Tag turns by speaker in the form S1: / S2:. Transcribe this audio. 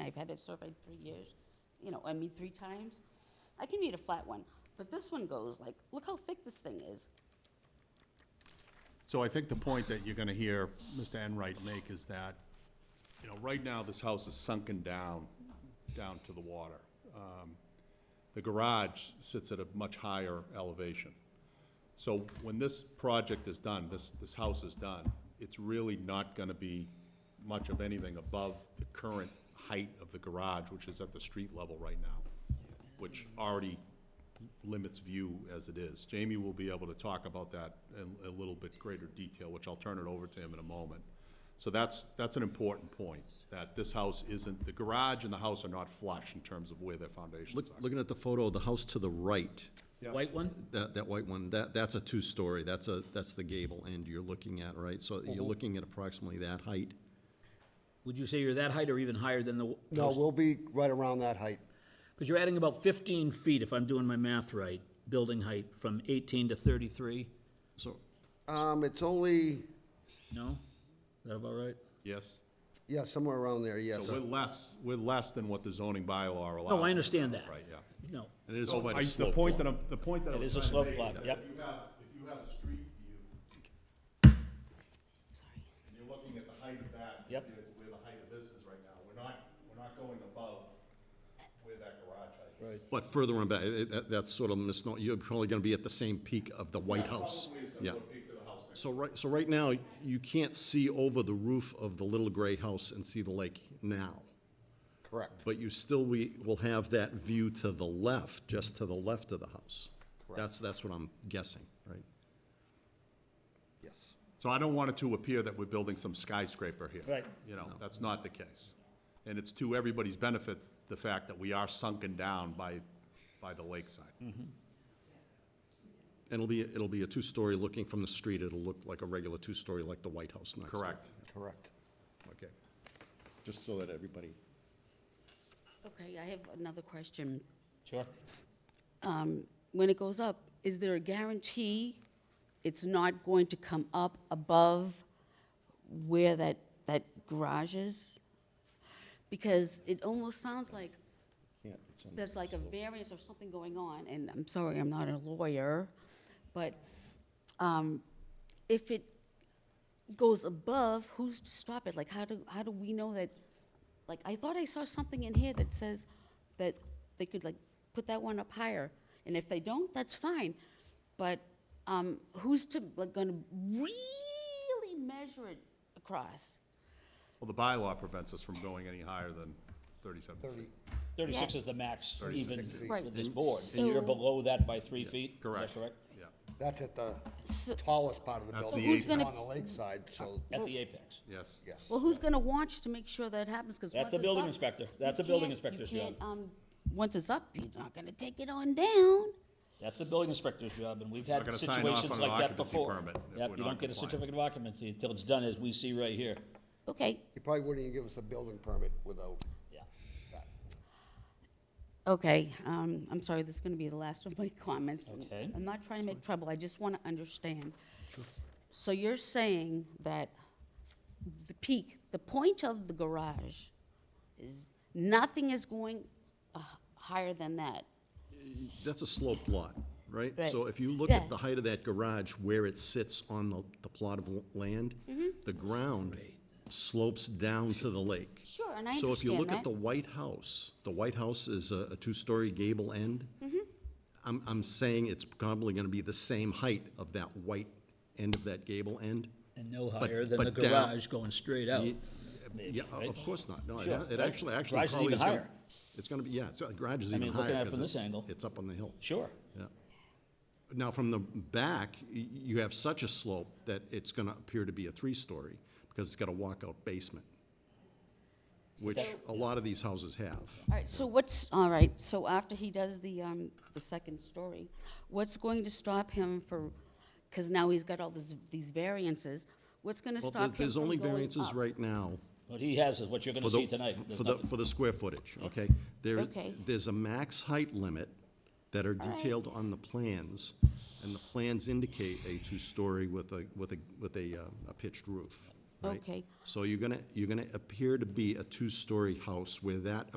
S1: I've had it surveyed three years, you know, I mean, three times. I can read a flat one, but this one goes like, look how thick this thing is.
S2: So I think the point that you're gonna hear Mr. Enright make is that, you know, right now, this house is sunken down, down to the water. Um, The garage sits at a much higher elevation. So when this project is done, this, this house is done, it's really not gonna be much of anything above the current height of the garage, which is at the street level right now, which already limits view as it is. Jamie will be able to talk about that in a little bit greater detail, which I'll turn it over to him in a moment. So that's, that's an important point, that this house isn't, the garage and the house are not flush in terms of where their foundations
S3: Look,
S2: are.
S3: looking at the photo, the house to the right,
S4: White one?
S3: that, that white one, that, that's a two-story, that's a, that's the gable end you're looking at, right? So
S2: Mm-hmm.
S3: you're looking at approximately that height.
S4: Would you say you're that height or even higher than the?
S5: No, we'll be right around that height.
S4: Because you're adding about 15 feet, if I'm doing my math right, building height from 18 to 33,
S3: So,
S5: Um, it's only,
S4: no? Is that about right?
S2: Yes?
S5: yeah, somewhere around there, yes.
S2: So we're less, we're less than what the zoning bylaw allows.
S4: No, I understand that.
S2: Right, yeah.
S4: No.
S3: and it is
S2: So
S3: quite
S2: I-
S3: a slope.
S2: The point that I'm, the point that I
S4: It
S2: was
S4: is a
S2: trying to
S4: slope
S2: make
S4: lot,
S2: that
S4: yep.
S2: If you have, if you have a street view,
S1: Sorry.
S2: and you're looking at the height of that.
S4: Yep.
S2: compared to Where the height of this is right now, we're not, we're not going above where that garage height is.
S5: Right.
S3: But further on back, it- it- that, that's sort of misno you're probably gonna be at the same peak of the White House.
S2: Probably a
S3: Yeah.
S2: similar peak to the house next.
S3: So right, so right now, you can't see over the roof of the little gray house and see the lake now.
S5: Correct,
S3: But you still, we will have that view to the left, just to the left of the house. That's, that's what I'm guessing, right?
S5: yes.
S2: So I don't want it to appear that we're building some skyscraper here.
S4: Right.
S2: You know, that's not the case. And it's to everybody's benefit, the fact that we are sunken down by, by the lakeside.
S4: Mm-hmm.
S3: And it'll be, it'll be a two-story looking from the street, it'll look like a regular two-story like the White House next door.
S2: Correct.
S5: Correct.
S3: Okay. Just so that everybody,
S1: Okay, I have another question.
S4: Sure.
S1: Um, When it goes up, is there a guarantee it's not going to come up above where that, that garage is? Because it almost sounds like
S3: can't, it's on-
S1: there's like a variance or something going on, and I'm sorry, I'm not a lawyer, but um, if it goes above, who's to stop it? Like, how do, how do we know that, like, I thought I saw something in here that says that they could like put that one up higher, and if they don't, that's fine. But um, who's to, like, gonna really measure it across?
S2: Well, the bylaw prevents us from going any higher than thirty-seven feet.
S4: 36 is the max even
S1: Right.
S4: with this board, and
S1: And
S4: you're
S1: so-
S4: below that by three feet? Is that correct?
S2: Yeah.
S5: That's at the
S1: So-
S5: tallest part of the
S2: That's
S5: building.
S2: the So who's
S1: gonna-
S5: On the lakeside, so,
S4: At the apex.
S2: Yes.
S5: yes.
S1: Well, who's gonna watch to make sure that happens, because
S4: That's
S1: once
S4: the
S1: it's
S4: building
S1: up,
S4: inspector.
S1: you
S4: That's the building
S1: can't- you
S4: inspector's job.
S1: can't, um, Once it's up, you're not gonna take it on down.
S4: That's the building inspector's job, and we've
S2: Not
S4: had
S2: gonna sign off
S4: situations
S2: on an
S4: like that
S2: occupancy
S4: before.
S2: permit if
S4: Yep,
S2: we're not
S4: you don't get a
S2: compliant.
S4: certificate of occupancy until it's done, as we see right here.
S1: Okay,
S5: He probably wouldn't even give us a building permit without
S4: Yeah.
S5: that.
S1: okay, um, I'm sorry, this is gonna be the last of my comments. and
S4: Okay.
S1: I'm not trying to make trouble, I just wanna understand. So you're saying that the peak, the point of the garage is, nothing is going uh, higher than that?
S3: that's a sloped lot, right?
S1: Right.
S3: So if you look at
S1: Yeah.
S3: the height of that garage, where it sits on the, the plot of l- land,
S1: Mm-hmm.
S3: the ground slopes down to the lake.
S1: Sure, and I
S3: So if you look at
S1: understand
S3: the
S1: that.
S3: White House, the White House is a, a two-story gable end.
S1: Mm-hmm.
S3: I'm, I'm saying it's probably gonna be the same height of that white end of that gable end.
S4: And no
S3: But-
S4: higher than the
S3: but down-
S4: garage going straight out.
S3: Yeah,
S4: right?
S3: of course not, no, it-
S4: Sure,
S3: it
S4: right.
S3: actually, actually
S4: Garage is
S3: probably
S4: even
S3: is gonna,
S4: higher.
S3: it's gonna be, yeah, it's, uh, garage is
S4: I
S3: even
S4: mean,
S3: higher.
S4: looking at it
S3: 'cause
S4: from this
S3: it's-
S4: angle.
S3: It's up on the hill.
S4: Sure.
S3: Yeah. Now, from the back, y- you have such a slope that it's going to appear to be a three-story because it's got a walkout basement, which a lot of these houses have.
S1: All right, so what's, all right, so after he does the, um, the second story, what's going to stop him for, because now he's got all this, these variances, what's gonna
S3: Well,
S1: stop
S3: there-
S1: him from going up?
S3: there's only variances right now
S4: What he has is what you're gonna
S3: for the-
S4: see tonight. There's
S3: For the,
S4: nothing-
S3: for the square footage, okay? There,
S1: Okay.
S3: there's a max height limit that are detailed on the plans, and the plans indicate a two-story with a, with a, with a uh, a pitched roof. right?
S1: Okay.
S3: So you're gonna, you're gonna appear to be a two-story house where that